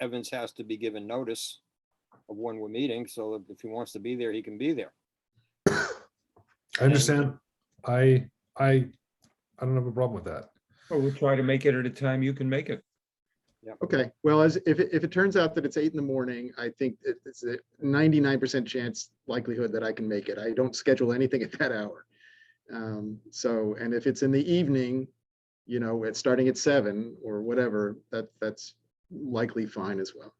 Evans has to be given notice of when we're meeting, so if- if he wants to be there, he can be there. I understand. I, I, I don't have a problem with that. Well, we'll try to make it at a time you can make it. Okay, well, as, if, it- if it turns out that it's eight in the morning, I think it- it's a ninety-nine percent chance likelihood that I can make it. I don't schedule anything at that hour. Um, so, and if it's in the evening, you know, it's starting at seven or whatever, that, that's likely fine as well.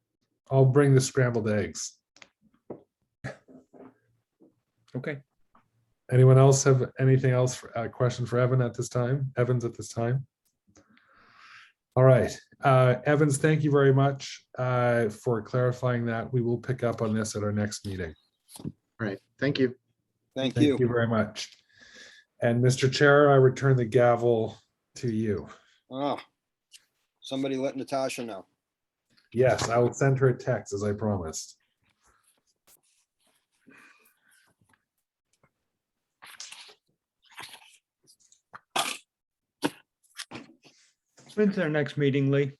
I'll bring the scrambled eggs. Okay. Anyone else have anything else, for- a question for Evan at this time? Evans at this time? All right, uh, Evans, thank you very much uh, for clarifying that. We will pick up on this at our next meeting. All right, thank you. Thank Thank you you. very much. And Mr. Chair, I return the gavel to you. Ah, Somebody let Natasha know. Yes, I will send her a text as I promised. When's our next meeting, Lee?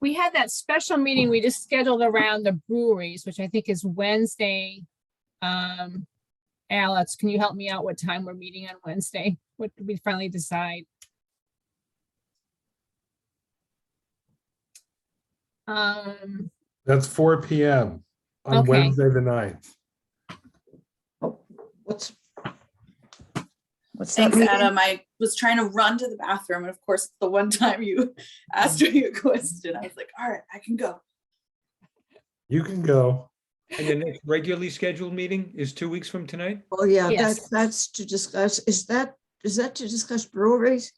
we had that special meeting we just scheduled around the breweries, which I think is Wednesday. Um, Alex, can you help me out what time we're meeting on Wednesday? What did we finally decide? Um, That's four PM on Okay. Wednesday, the 9th. What's? What's that Thanks, meeting? Adam. I was trying to run to the bathroom, and of course, the one time you asked me a question, I was like, "All right, I can go." You can go. And the next regularly scheduled meeting is two weeks from tonight? Oh, yeah, Yes. that's, that's to discuss, is that, is that to discuss breweries?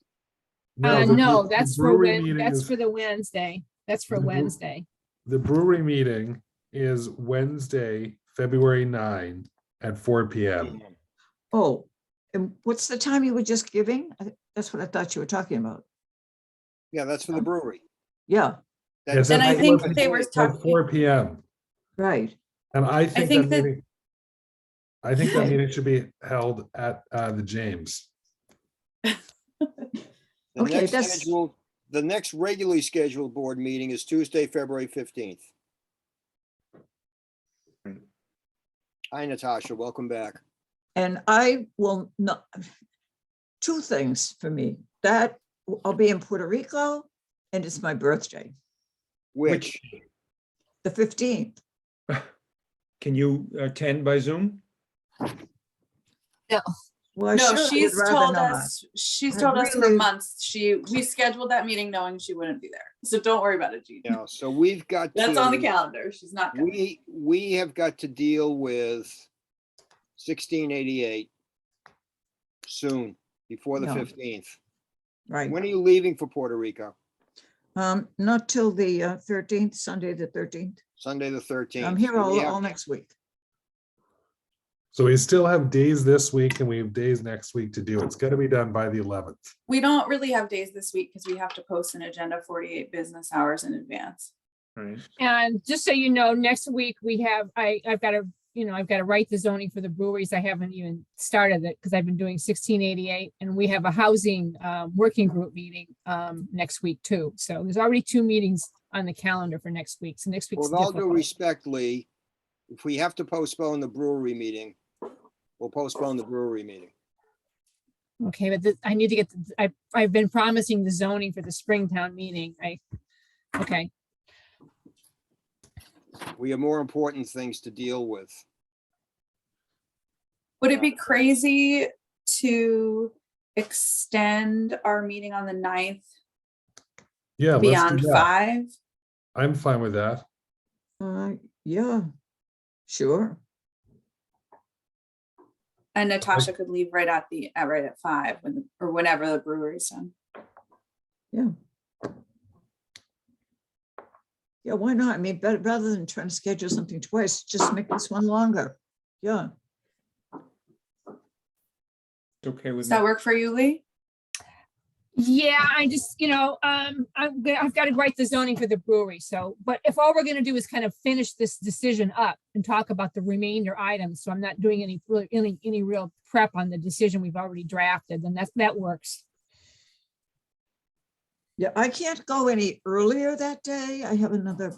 uh, the no, bre- the that's for, brewery Wed- meeting that's is- for the Wednesday. That's for The brew- Wednesday. The brewery meeting is Wednesday, February 9 at four PM. Oh, and what's the time you were just giving? I thi- That's what I thought you were talking about. Yeah, that's for the brewery. Yeah, Yes, That's- at And I four- think they were At talking. four PM. right. And I think think that that- meeting, I think that Yeah. meeting should be held at uh, the James. The Okay, next that's- scheduled- The next regularly scheduled board meeting is Tuesday, February fifteenth. Hi, Natasha. Welcome back. And I will not, two things for me, that I'll be in Puerto Rico and it's my birthday, Which, the fifteenth. Can you attend by Zoom? Well, No, sure, I she's would rather told not. us. She's I told us for really- months. She we scheduled that meeting knowing she wouldn't be there, so don't worry about it, Jean. you know, so we've got. That's on the to- calendar. She's not. coming. We, we have got to deal with sixteen eighty-eight soon, before the No. fifteenth. Right, When are you leaving for Puerto Rico? um, not till the uh, thirteenth, Sunday, the thirteenth. Sunday, the thirteenth. I'm here all, all next week. So we still have days this week and we have days next week to do. It's gotta be done by the eleventh. We don't really have days this week because we have to post an agenda 48 business hours in advance. Right. And just so you know, next week we have, I, I've got to, you know, I've got to write the zoning for the breweries. I haven't even started it because I've been doing sixteen eighty-eight and we have a housing, uh, working group meeting, um, next week too. So there's already two meetings on the calendar for next week. So next week's With all due difficult. respect, Lee, if we have to postpone the brewery meeting, we'll postpone the brewery meeting. Okay, but this- I need to get, the- I, I've been promising the zoning for the Springtown meeting. I, okay, We have more important things to deal with. Would it be crazy to extend our meeting on the 9th Yeah. let's do beyond that. five? I'm fine with that. Uh, yeah, sure. And Natasha could leave right at the, at right at five when, or whenever the brewery's done. Yeah, why not? I mean, but rather than trying to schedule something twice, just make this one longer. Yeah, It's okay with Does me. that work for you, Lee? Yeah, I just, you know, um, I'm, gonna- I've got to write the zoning for the brewery, so, but if all we're gonna do is kind of finish this decision up and talk about the remainder items, so I'm not doing any, really- any, any real prep on the decision we've already drafted, then that's, that works. Yeah, I can't go any earlier that day. I have another